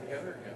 together again.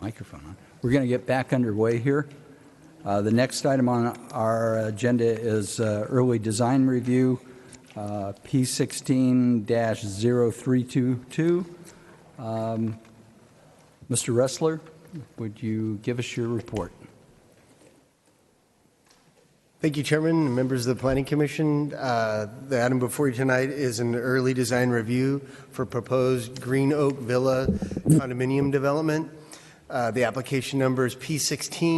microphone on. We're going to get back underway here. Uh, The next item on our agenda is uh, early design review, uh, P16-0322. Um, Mr. Wrestler, Um, would you give us your report? Thank you, Chairman, and members of the Planning Commission. Uh, The item before you tonight is an early design review for proposed Green Oak Villa condominium development. Uh, The application number is P16